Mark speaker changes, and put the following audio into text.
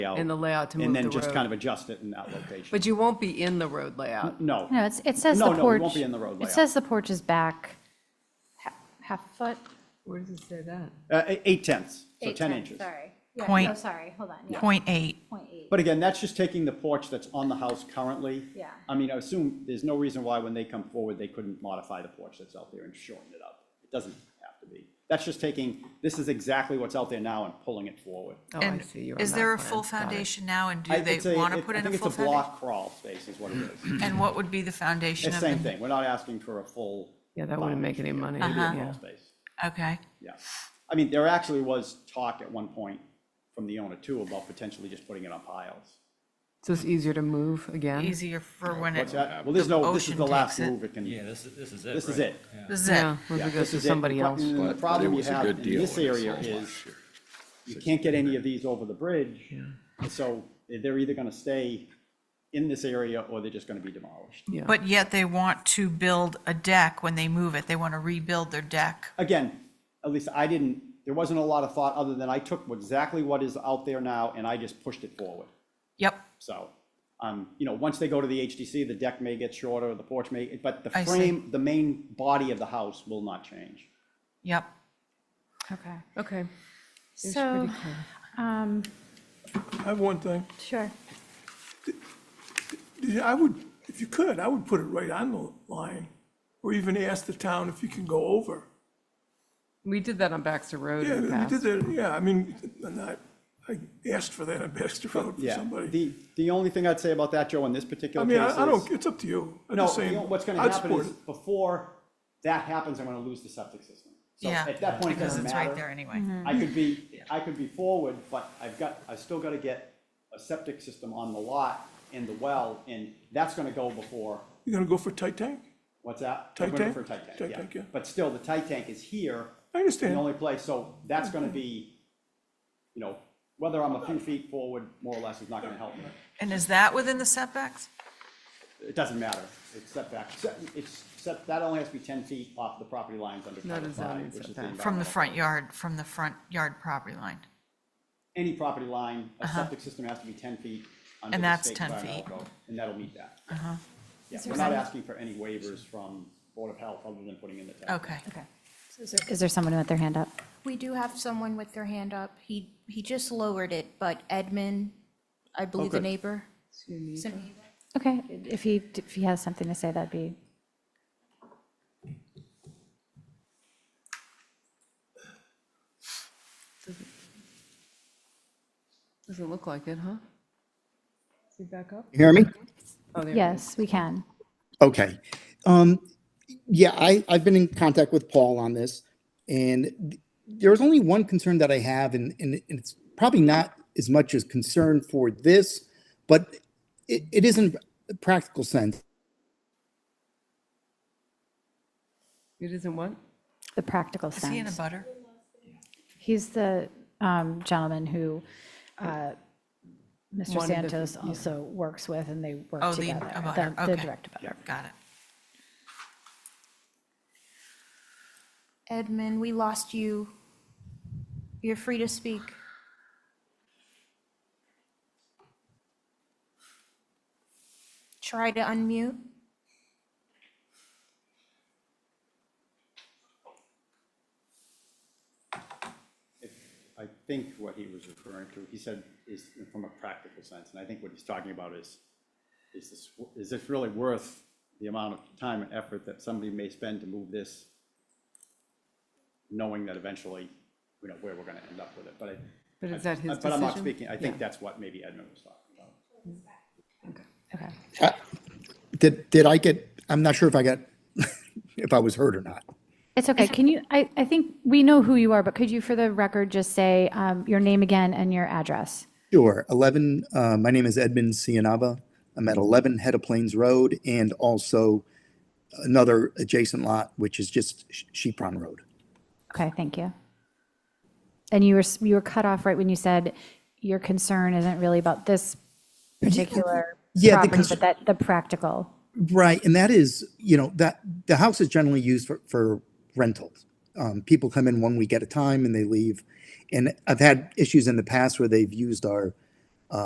Speaker 1: layout.
Speaker 2: And the layout to move
Speaker 1: And then
Speaker 2: the
Speaker 1: just
Speaker 2: road.
Speaker 1: kind of adjust it in that location.
Speaker 2: But you won't be in the road layout.
Speaker 1: No.
Speaker 3: No, it's, it says the
Speaker 1: No,
Speaker 3: porch.
Speaker 1: no, it won't be in the road
Speaker 3: It
Speaker 1: layout.
Speaker 3: says the porch is back ha- half a foot.
Speaker 2: Where does it say that?
Speaker 1: Uh, e- Eight tenths, so
Speaker 3: Eight
Speaker 1: 10
Speaker 3: tenths,
Speaker 1: inches.
Speaker 3: Sorry. Yeah,
Speaker 4: Point-
Speaker 3: Oh, sorry, hold on. yeah,
Speaker 4: Point eight.
Speaker 3: Point eight.
Speaker 1: But again, that's just taking the porch that's on the house currently.
Speaker 3: Yeah.
Speaker 1: I mean, I assume there's no reason why when they come forward, they couldn't modify the porch that's out there and shorten it up. It doesn't have to be. That's just taking, this is exactly what's out there now and pulling it forward.
Speaker 2: Oh, I
Speaker 4: And
Speaker 2: see. You're on
Speaker 4: is
Speaker 2: that
Speaker 4: there a
Speaker 2: plan.
Speaker 4: full
Speaker 2: Got it.
Speaker 4: foundation now, and
Speaker 1: I-
Speaker 4: do they
Speaker 1: it's a-
Speaker 4: want to
Speaker 1: it-
Speaker 4: put in a
Speaker 1: I think
Speaker 4: full
Speaker 1: it's a
Speaker 4: foundation?
Speaker 1: block crawl space is what it is.
Speaker 4: And what would be the foundation
Speaker 1: It's
Speaker 4: of
Speaker 1: same
Speaker 4: the?
Speaker 1: thing. We're not asking for a full.
Speaker 2: Yeah, that wouldn't make any money.
Speaker 1: Maybe a
Speaker 2: Yeah.
Speaker 1: crawl space.
Speaker 4: Okay,
Speaker 1: Yeah. I mean, there actually was talk at one point from the owner too about potentially just putting it on piles.
Speaker 2: So it's easier to move again?
Speaker 4: easier for when it,
Speaker 1: What's that? Well, there's no, this is
Speaker 4: ocean
Speaker 1: the last
Speaker 4: takes it.
Speaker 1: move it can,
Speaker 5: Yeah, this, is- this is it.
Speaker 1: this is
Speaker 5: right?
Speaker 1: it.
Speaker 4: this is it.
Speaker 2: Yeah, once
Speaker 1: Yeah,
Speaker 2: it goes
Speaker 1: this
Speaker 2: to
Speaker 1: is it.
Speaker 2: somebody
Speaker 1: The pro-
Speaker 2: else.
Speaker 1: The
Speaker 6: But- but
Speaker 1: problem
Speaker 6: it
Speaker 1: you
Speaker 6: was a
Speaker 1: have
Speaker 6: good
Speaker 1: in
Speaker 6: deal
Speaker 1: this
Speaker 6: when it
Speaker 1: area
Speaker 6: sold
Speaker 1: is
Speaker 6: last year.
Speaker 1: you can't get any of these over the bridge. So they're either gonna stay in this area or they're just gonna be demolished.
Speaker 2: Yeah.
Speaker 4: But yet they want to build a deck when they move it. They want to rebuild their deck.
Speaker 1: Again, at least I didn't, there wasn't a lot of thought other than I took exactly what is out there now and I just pushed it forward.
Speaker 4: Yep,
Speaker 1: So, um, you know, once they go to the HDC, the deck may get shorter, the porch may, but the
Speaker 4: I see.
Speaker 1: frame, the main body of the house will not change.
Speaker 4: yep.
Speaker 3: Okay.
Speaker 2: Okay.
Speaker 3: So, um,
Speaker 7: I have one thing.
Speaker 3: sure.
Speaker 7: Yeah, I would, if you could, I would put it right on the line, or even ask the town if you can go over.
Speaker 2: We did that on Baxter Road
Speaker 7: Yeah,
Speaker 2: in the
Speaker 7: we
Speaker 2: past.
Speaker 7: did that, yeah, I mean, and I, I asked for that on Baxter Road for
Speaker 1: Yeah,
Speaker 7: somebody.
Speaker 1: the, the only thing I'd say about that, Joe, in this
Speaker 7: I
Speaker 1: particular case
Speaker 7: mean, I I
Speaker 1: is-
Speaker 7: don't, it's up to you. I'm
Speaker 1: No,
Speaker 7: just
Speaker 1: you
Speaker 7: saying,
Speaker 1: know, what's gonna
Speaker 7: I'd
Speaker 1: happen
Speaker 7: support
Speaker 1: is,
Speaker 7: it.
Speaker 1: before that happens, I'm gonna lose the septic system. So
Speaker 4: Yeah,
Speaker 1: at that point, it
Speaker 4: because
Speaker 1: doesn't
Speaker 4: it's right
Speaker 1: matter.
Speaker 4: there anyway.
Speaker 2: Mm-hmm.
Speaker 1: I could be, I could be forward, but I've got, I've still gotta get a septic system on the lot and the well, and that's gonna go before,
Speaker 7: You're gonna go for tight tank?
Speaker 1: what's that?
Speaker 7: Tight
Speaker 1: We're going
Speaker 7: tank?
Speaker 1: For tight
Speaker 7: Tight
Speaker 1: tank,
Speaker 7: tank,
Speaker 1: yeah.
Speaker 7: yeah.
Speaker 1: But still, the tight tank is here.
Speaker 7: I understand.
Speaker 1: The only place, so that's gonna be, you know, whether I'm a few feet forward, more or less, is not gonna help me.
Speaker 4: And is that within the setbacks?
Speaker 1: It doesn't matter, it's setback, set- it's, set- that only has to be ten feet off the property lines under
Speaker 2: Not a
Speaker 1: Title
Speaker 2: zoning
Speaker 1: V, which is the.
Speaker 2: setback.
Speaker 4: From the
Speaker 1: environmental-
Speaker 4: front yard, from the front yard property line?
Speaker 1: Any property line, a septic system has to be ten feet under
Speaker 4: Uh-huh. And
Speaker 1: the
Speaker 4: that's
Speaker 1: state
Speaker 4: 10
Speaker 1: environmental
Speaker 4: feet. Uh-huh.
Speaker 1: code, and that'll meet that. Yeah, we're not asking for any waivers from Board of Health other than putting in the tag.
Speaker 4: Okay.
Speaker 3: Okay. So is there- Is there someone with their hand up?
Speaker 8: We do have someone with their hand up. He, he just lowered it, but Edmund, I believe the
Speaker 1: good.
Speaker 8: neighbor. So-
Speaker 3: Okay, if he, if he has something to say, that'd be,
Speaker 2: Doesn't look like it, huh? Is he back up?
Speaker 9: You hear me?
Speaker 2: Oh, there he is.
Speaker 3: yes, we can.
Speaker 9: Okay. Um, yeah, I, I've been in contact with Paul on this, and th- there's only one concern that I have, and, and it- it's probably not as much as concern for this, but it, it isn't a practical sense.
Speaker 2: It isn't what?
Speaker 3: The practical
Speaker 4: Is he in a
Speaker 3: sense.
Speaker 4: butter?
Speaker 3: He's the um, gentleman who uh,
Speaker 2: Wanted
Speaker 3: Mr.
Speaker 2: the-
Speaker 3: Santos also works with, and they work
Speaker 4: Oh, the
Speaker 3: together.
Speaker 4: abutter,
Speaker 3: the-
Speaker 4: okay.
Speaker 3: The direct abutter.
Speaker 4: Got it.
Speaker 8: Edmund, we lost you. You're free to speak. Try to unmute.
Speaker 1: I think what he was referring to, he said, is from a practical sense, and I think what he's talking about is, is this, is this really worth the amount of time and effort that somebody may spend to move this, knowing that eventually, you know, where we're gonna end up with it, but I.
Speaker 2: But is that his
Speaker 1: But I'm not
Speaker 2: decision?
Speaker 1: speaking, I
Speaker 2: Yeah.
Speaker 1: think that's what maybe Edmund was talking about.
Speaker 3: Okay.
Speaker 9: Did, did I get, I'm not sure if I got, if I was heard or not.
Speaker 3: It's okay. Can you, I, I think we know who you are, but could you, for the record, just say um, your name again and your address?
Speaker 9: Sure. 11, uh, my name is Edmund Cianava. I'm at 11 Head of Plains Road and also another adjacent lot, which is just Sh- Shepron Road.
Speaker 3: Okay, thank you. And you were, s- you were cut off right when you said your concern isn't really about this particular
Speaker 9: Yeah, the
Speaker 3: property,
Speaker 9: concern-
Speaker 3: but that, the practical.
Speaker 9: Right, and that is, you know, that the house is generally used for, for rentals. Um, people come in one week at a time and they leave. And I've had issues in the past where they've used our